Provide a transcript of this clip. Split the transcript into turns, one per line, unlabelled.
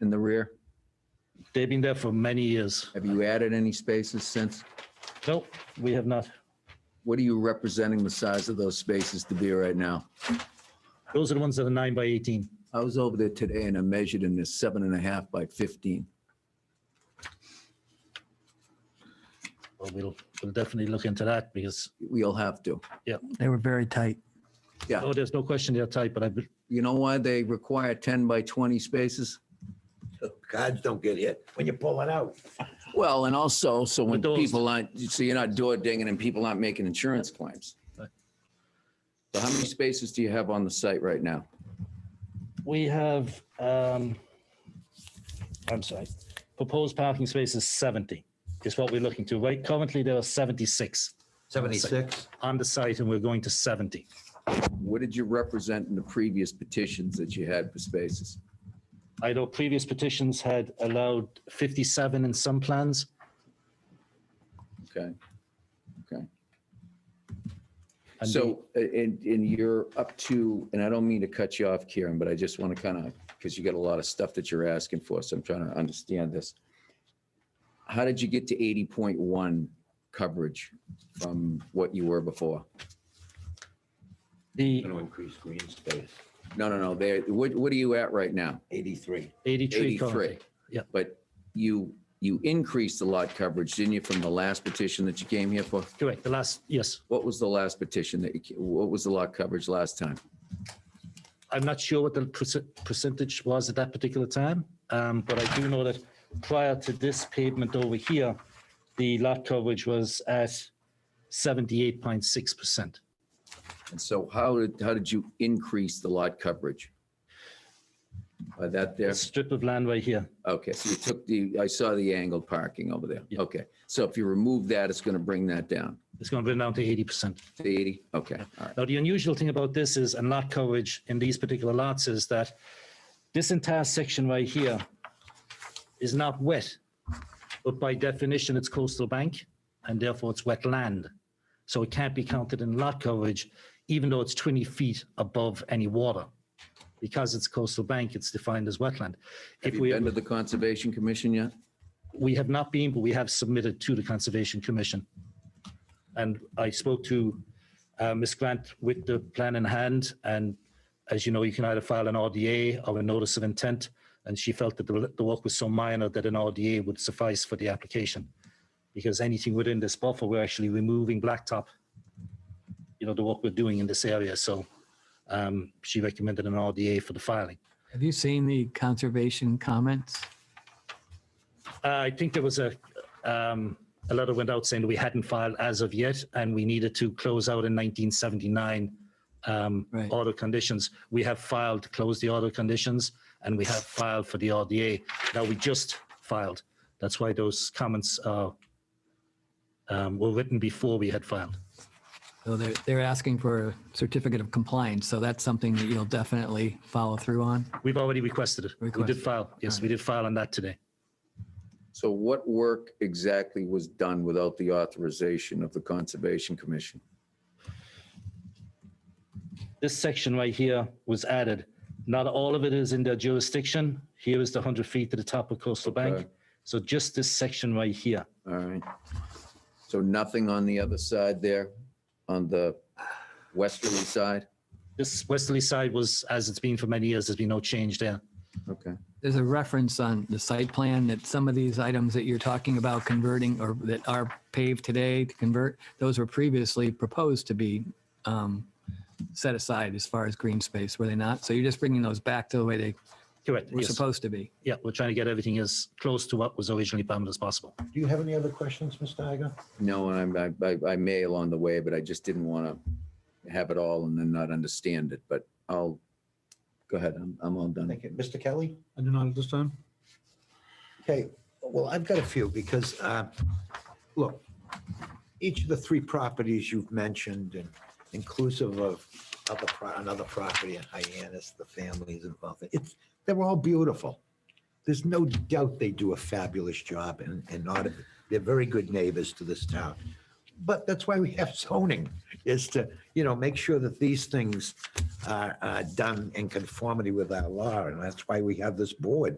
in the rear?
They've been there for many years.
Have you added any spaces since?
Nope, we have not.
What are you representing the size of those spaces to be right now?
Those are the ones that are nine by 18.
I was over there today and I measured and it's seven and a half by 15.
Well, we'll, we'll definitely look into that because,
We'll have to.
They were very tight.
Yeah.
oh, there's no question they're tight, but I, be-
You know why they require 10 by 20 spaces?
Cards don't get hit when you pull it out.
Well, and also, so when
But those-
people aren't, so you're not door dinging and people aren't making insurance claims.
Right.
So how many spaces do you have on the site right now?
we have, um, I'm sorry, proposed parking space is 70 is what we're looking to. Right currently, there are 76
Seventy-six.
on the site and we're going to 70.
What did you represent in the previous petitions that you had for spaces?
I know previous petitions had allowed 57 in some plans.
Okay. Okay.
and the-
So, uh, and, and you're up to, and I don't mean to cut you off, Kieran, but I just want to kind of, because you got a lot of stuff that you're asking for, so I'm trying to understand this. How did you get to 80.1 coverage from what you were before?
The
Going to increase green space,
No, no, no, there, what, what are you at right now?
eighty-three.
83
83.
currently. Yeah.
But you, you increased the lot coverage, didn't you, from the last petition that you came here for?
Correct, the last, yes.
What was the last petition that you, what was the lot coverage last time?
I'm not sure what the perce- percentage was at that particular time, um, but I do know that prior to this pavement over here, the lot coverage was at 78.6%.
And so how did, how did you increase the lot coverage? By that there?
This strip of land right here,
Okay, so you took the, I saw the angled parking over there.
Yeah.
Okay, so if you remove that, it's going to bring that down
it's going to bring down to 80%.
to 80? Okay, all right.
Now, the unusual thing about this is, and lot coverage in these particular lots is that this entire section right here is not wet, but by definition, it's coastal bank, and therefore it's wetland. So it can't be counted in lot coverage, even though it's 20 feet above any water. Because it's coastal bank, it's defined as wetland.
Have
If
you
we,
been to the Conservation Commission yet?
we have not been, but we have submitted to the Conservation Commission. And I spoke to uh, Ms. Grant with the plan in hand, and as you know, you can either file an RDA or a notice of intent, and she felt that the the work was so minor that an RDA would suffice for the application. Because anything within this buffer, we're actually removing blacktop, you know, the work we're doing in this area, so um, she recommended an RDA for the filing.
Have you seen the conservation comments?
Uh, I think there was a, um, a letter went out saying that we hadn't filed as of yet, and we needed to close out in 1979 um,
Right.
order conditions. We have filed to close the order conditions, and we have filed for the RDA. Now, we just filed. That's why those comments are, um, were written before we had filed.
So they're, they're asking for a certificate of compliance. So that's something that you'll definitely follow through on.
We've already requested it. We
Requested.
did file. Yes, we did file on that today.
So what work exactly was done without the authorization of the Conservation Commission?
this section right here was added. Not all of it is in their jurisdiction. Here is the 100 feet to the top of coastal bank.
Okay.
So just this section right here.
All right. So nothing on the other side there, on the westerly side?
This westerly side was, as it's been for many years, there's been no change there.
Okay.
There's a reference on the site plan that some of these items that you're talking about converting or that are paved today to convert, those were previously proposed to be um, set aside as far as green space, were they not? So you're just bringing those back to the way they
Correct.
were
yes.
supposed to be.
Yeah, we're trying to get everything as close to what was originally planned as possible.
Do you have any other questions, Mr. Igo?
No, and I, I, I may along the way, but I just didn't want to have it all and then not understand it, but I'll, go ahead, I'm, I'm all done.
Thank you. Mr. Kelly?
I do not at this time.
Okay, well, I've got a few because, uh, look, each of the three properties you've mentioned and inclusive of other, pro- another property in Hyannis, the families involved, it's, they're all beautiful. There's no doubt they do a fabulous job and, and not, they're very good neighbors to this town. But that's why we have zoning, is to, you know, make sure that these things are, are done in conformity with our law. And that's why we have this board